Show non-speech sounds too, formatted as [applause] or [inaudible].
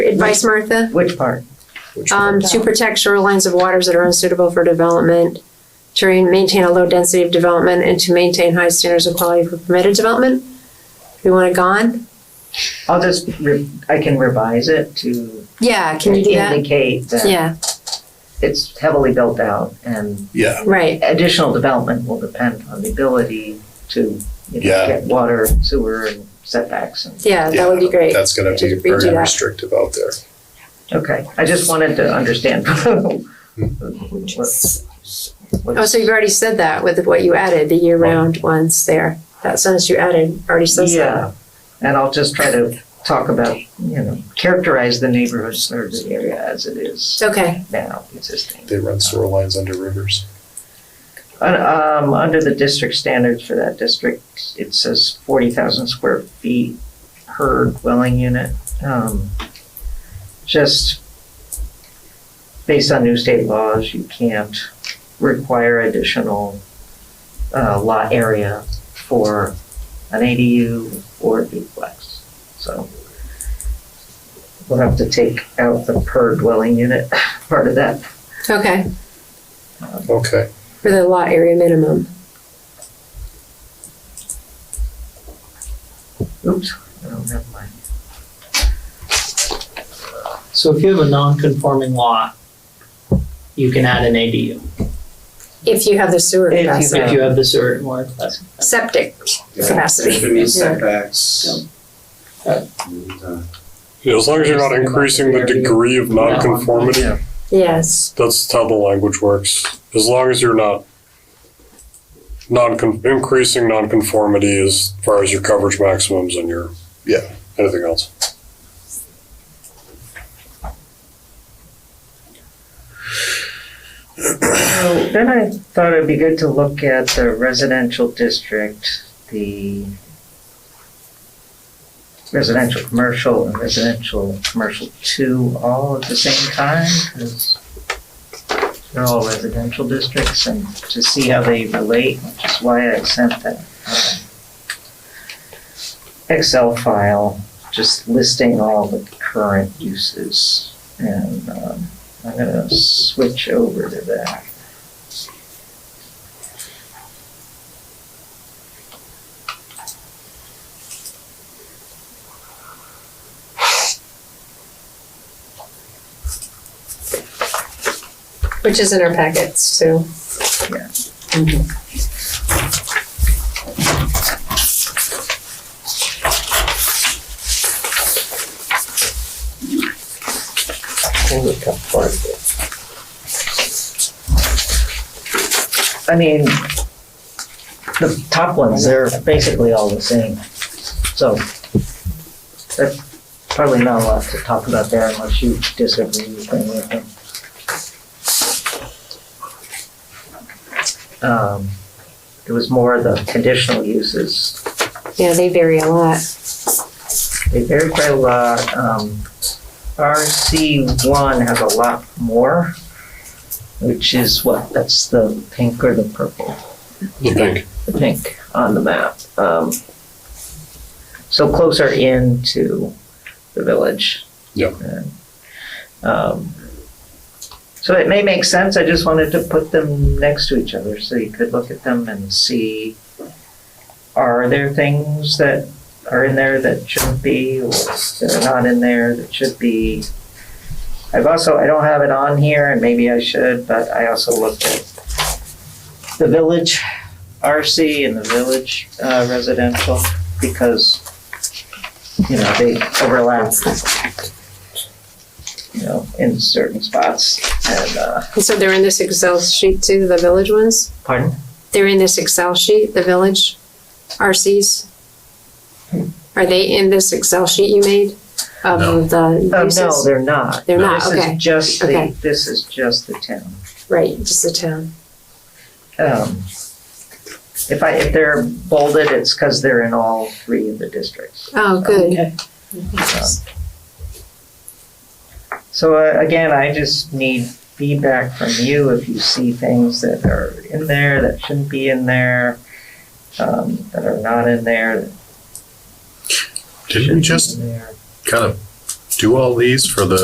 advice, Martha? Which part? Which Um, part? to protect shorelines of waters that are unsuitable for development, to re- maintain a low density of development, and to maintain high standards of quality for permitted development. We want it gone? I'll just, re- I can revise it to Yeah, can you do that? indicate that Yeah, it's heavily built out and Yeah, right, additional development will depend on the ability to, you know, Yeah. get water, sewer and setbacks and, yeah, that would be yeah, great. that's gonna be Redo very that. restrictive out there. okay. I just wanted to understand. [laughs] what- what- Oh, so you've already said that with what you added, the year-round ones there. That sentence you added already says that. Yeah, and I'll just try to talk about, you know, characterize the neighborhood or the area as it is Okay, now existing. They run sewer lines under rivers. Uh, Um, under the district standards for that district, it says forty thousand square feet per dwelling unit. Um, Just based on new state laws, you can't require additional, uh, lot area for an ADU or a duplex. So we'll have to take out the per dwelling unit [laughs] part of that. okay, Okay, for the lot area minimum. Oops, I don't have mine. So if you have a non-conforming lot, you can add an ADU If you have the sewer If you capacity, if you have the sewer and water class. septic Yeah. capacity. If it meets Yeah. setbacks. Yeah. And, uh, Yeah, as long as you're not increasing the degree of nonconformity, Yes, that's how the language works. As long as you're not non increasing nonconformity as far as your coverage maximums and your Yeah. anything else. So then I thought it'd be good to look at the residential district, the residential commercial and residential commercial two all at the same time, 'cause they're all residential districts and to see how they relate, which is why I sent that um, Excel file, just listing all the current uses. And um, I'm gonna switch over to that. which is in our packets too. I mean, the top ones, they're basically all the same. So there's probably not a lot to talk about there unless you disagree with any of them. Um, It was more the conditional uses. Yeah, they vary a lot. They vary quite a lot. Um, RC one has a lot more, which is what, that's the pink or the purple? The pink. I think, on the map. Um, so closer in to the village. Yep. And, Um, so it may make sense, I just wanted to put them next to each other so you could look at them and see, are there things that are in there that shouldn't be, or that are not in there that should be? I've also, I don't have it on here, and maybe I should, but I also looked at the village RC and the village uh, residential because, you know, they overlap, you know, in certain spots and, uh, And so they're in this Excel sheet too, the village ones? pardon? They're in this Excel sheet, the village RCs? Are they in this Excel sheet you made of the Uh, no, uses? they're not. They're not, okay. This is just Okay. the, this is just the town. Right, just the town. Um, If I, if they're bolded, it's because they're in all three of the districts. Oh, good. So uh, again, I just need feedback from you if you see things that are in there that shouldn't be in there, um, that are not in there. that Didn't we should be just in there. kind of do all these for the